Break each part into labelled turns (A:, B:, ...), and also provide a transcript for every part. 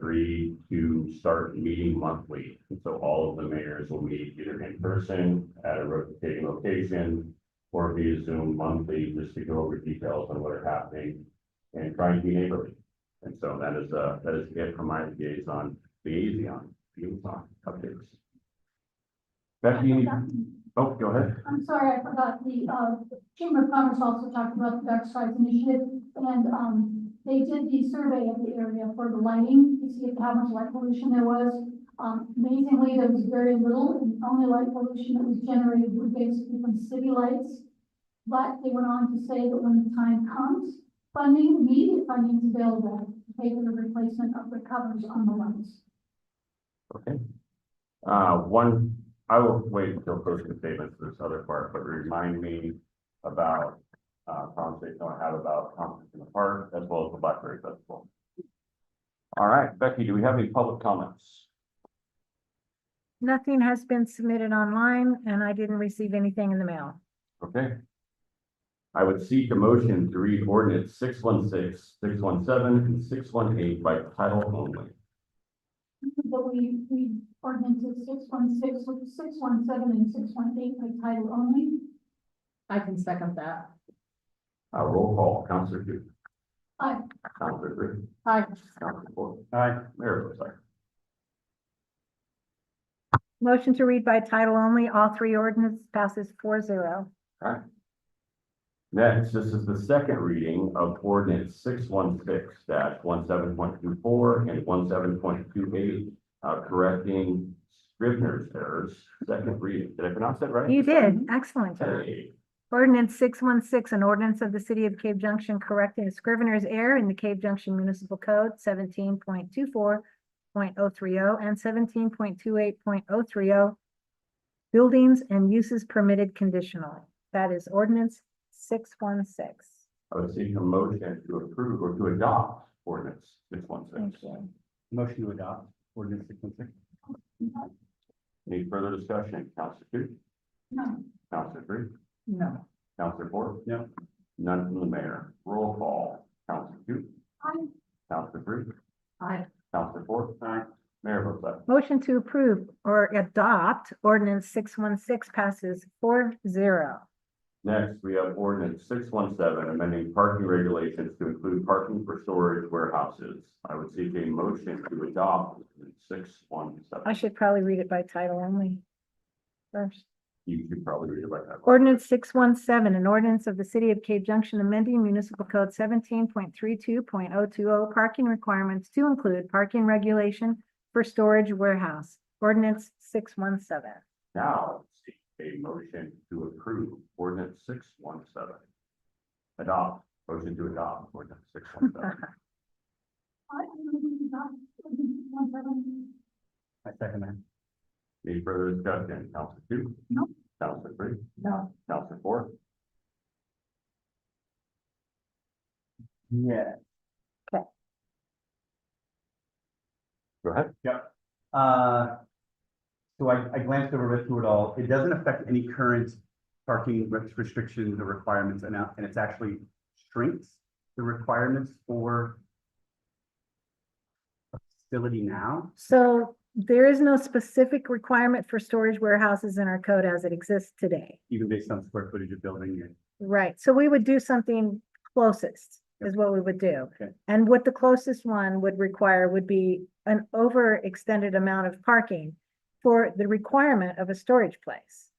A: agree to start meeting monthly. So all of the mayors will meet either in person at a rotating location or via Zoom monthly, just to go over details on what are happening and try and be neighborly. And so that is, uh, that is it from my liaison, liaison, liaison updates. Becky, any- oh, go ahead.
B: I'm sorry, I forgot the, uh, Chamber of Commerce also talked about the Dark Skies Initiative, and, um, they did the survey of the area for the lighting, to see how much light pollution there was. Um, amazingly, there was very little, and the only light pollution that was generated was basically from city lights. But they went on to say that when the time comes, funding, immediate funding is available to pay for the replacement of the covers on the lights.
A: Okay. Uh, one, I will wait until closing statements for this other part, but remind me about, uh, conversation I had about conference in the park as well as the Blackberry Festival. All right, Becky, do we have any public comments?
C: Nothing has been submitted online and I didn't receive anything in the mail.
A: Okay. I would seek a motion to read ordinance 616, 617, and six one eight by title only.
B: But we, we ordinances six one six, six one seven, and six one eight by title only.
D: I can second that.
A: Uh, roll call, Counselor Duke.
B: Aye.
A: Counselor Green.
D: Aye.
A: Counselor Ford. Aye. Mayor votes aye.
C: Motion to read by title only, all three ordinance passes four zero.
A: Next, this is the second reading of ordinance six one six dash one seven point two four and one seven point two eight. Uh, correcting Scrivener's errors, second reading. Did I pronounce that right?
C: You did, excellent. job.
A: Hey,
C: Ordinance six one six, an ordinance of the city of Cave Junction correcting a scrivener's error in the Cave Junction Municipal Code seventeen point two four point oh three oh and seventeen point two eight point oh three oh. Buildings and uses permitted conditionally. That is ordinance six one six.
A: I would seek a motion to approve or to adopt ordinance six one
C: Thank
A: six.
C: you.
A: Motion to adopt ordinance six one six. Any further discussion? Counselor two,
B: No,
A: Counselor three,
D: No.
A: Counselor four? No. None from the mayor. Roll call. Counselor two,
B: I,
A: Counselor three,
D: I,
A: Counselor four? Aye. Mayor votes aye.
C: Motion to approve or adopt ordinance six one six passes four zero.
A: Next, we have ordinance six one seven, amending parking regulations to include parking for storage warehouses. I would seek a motion to adopt six one
C: I
A: seven.
C: should probably read it by title only. First,
A: You could probably read it right now.
C: ordinance six one seven, an ordinance of the city of Cave Junction amending municipal code seventeen point three two point oh two oh parking requirements to include parking regulation for storage warehouse. Ordinance six one seven.
A: Now, seek a motion to approve ordinance six one seven. Adopt, motion to adopt ordinance six one seven.
B: I don't think it's not, one seven,
A: I second that. Any further discussion? Counselor two?
B: No.
A: Counselor three?
D: no,
A: Counselor four?
E: Yeah,
A: Go ahead.
E: uh. So I, I glanced over it through it all. It doesn't affect any current parking re- restrictions or requirements and out, and it's actually shrinks the requirements for. a Facility now,
C: So there is no specific requirement for storage warehouses in our code as it exists today.
E: even based on square footage of building and
C: Right, so we would do something closest is what we would do.
E: Okay.
C: And what the closest one would require would be an overextended amount of parking for the requirement of a storage place.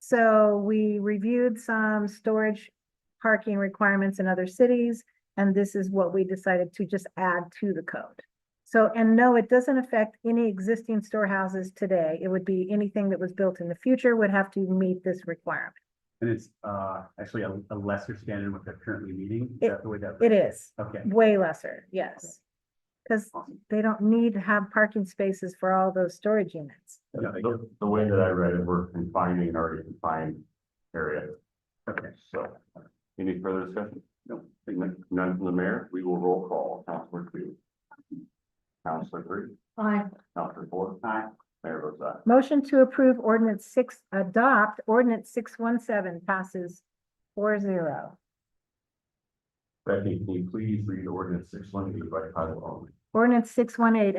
C: So we reviewed some storage parking requirements in other cities, and this is what we decided to just add to the code. So, and no, it doesn't affect any existing storehouses today. It would be anything that was built in the future would have to meet this requirement.
E: and it's, uh, actually a, a lesser standard what they're currently meeting. Is
C: It-
E: that the way that?
C: It is.
E: Okay,
C: Way lesser, yes. Because
E: Awesome.
C: they don't need to have parking spaces for all those storage units.
E: Yeah, thank
A: The, the way that I read it, we're confining an already confined area,
E: okay,
A: so. Any further discussion?
E: no, thank you.
A: None none from the mayor, we will roll call, Counselor two. Counselor three,
D: I,
A: Counselor four.
E: Aye.
A: Mayor votes aye.
C: Motion to approve ordinance six, adopt ordinance six one seven passes four zero.
A: Becky, can you please read ordinance six one eight by title only?
C: Ordinance six one eight,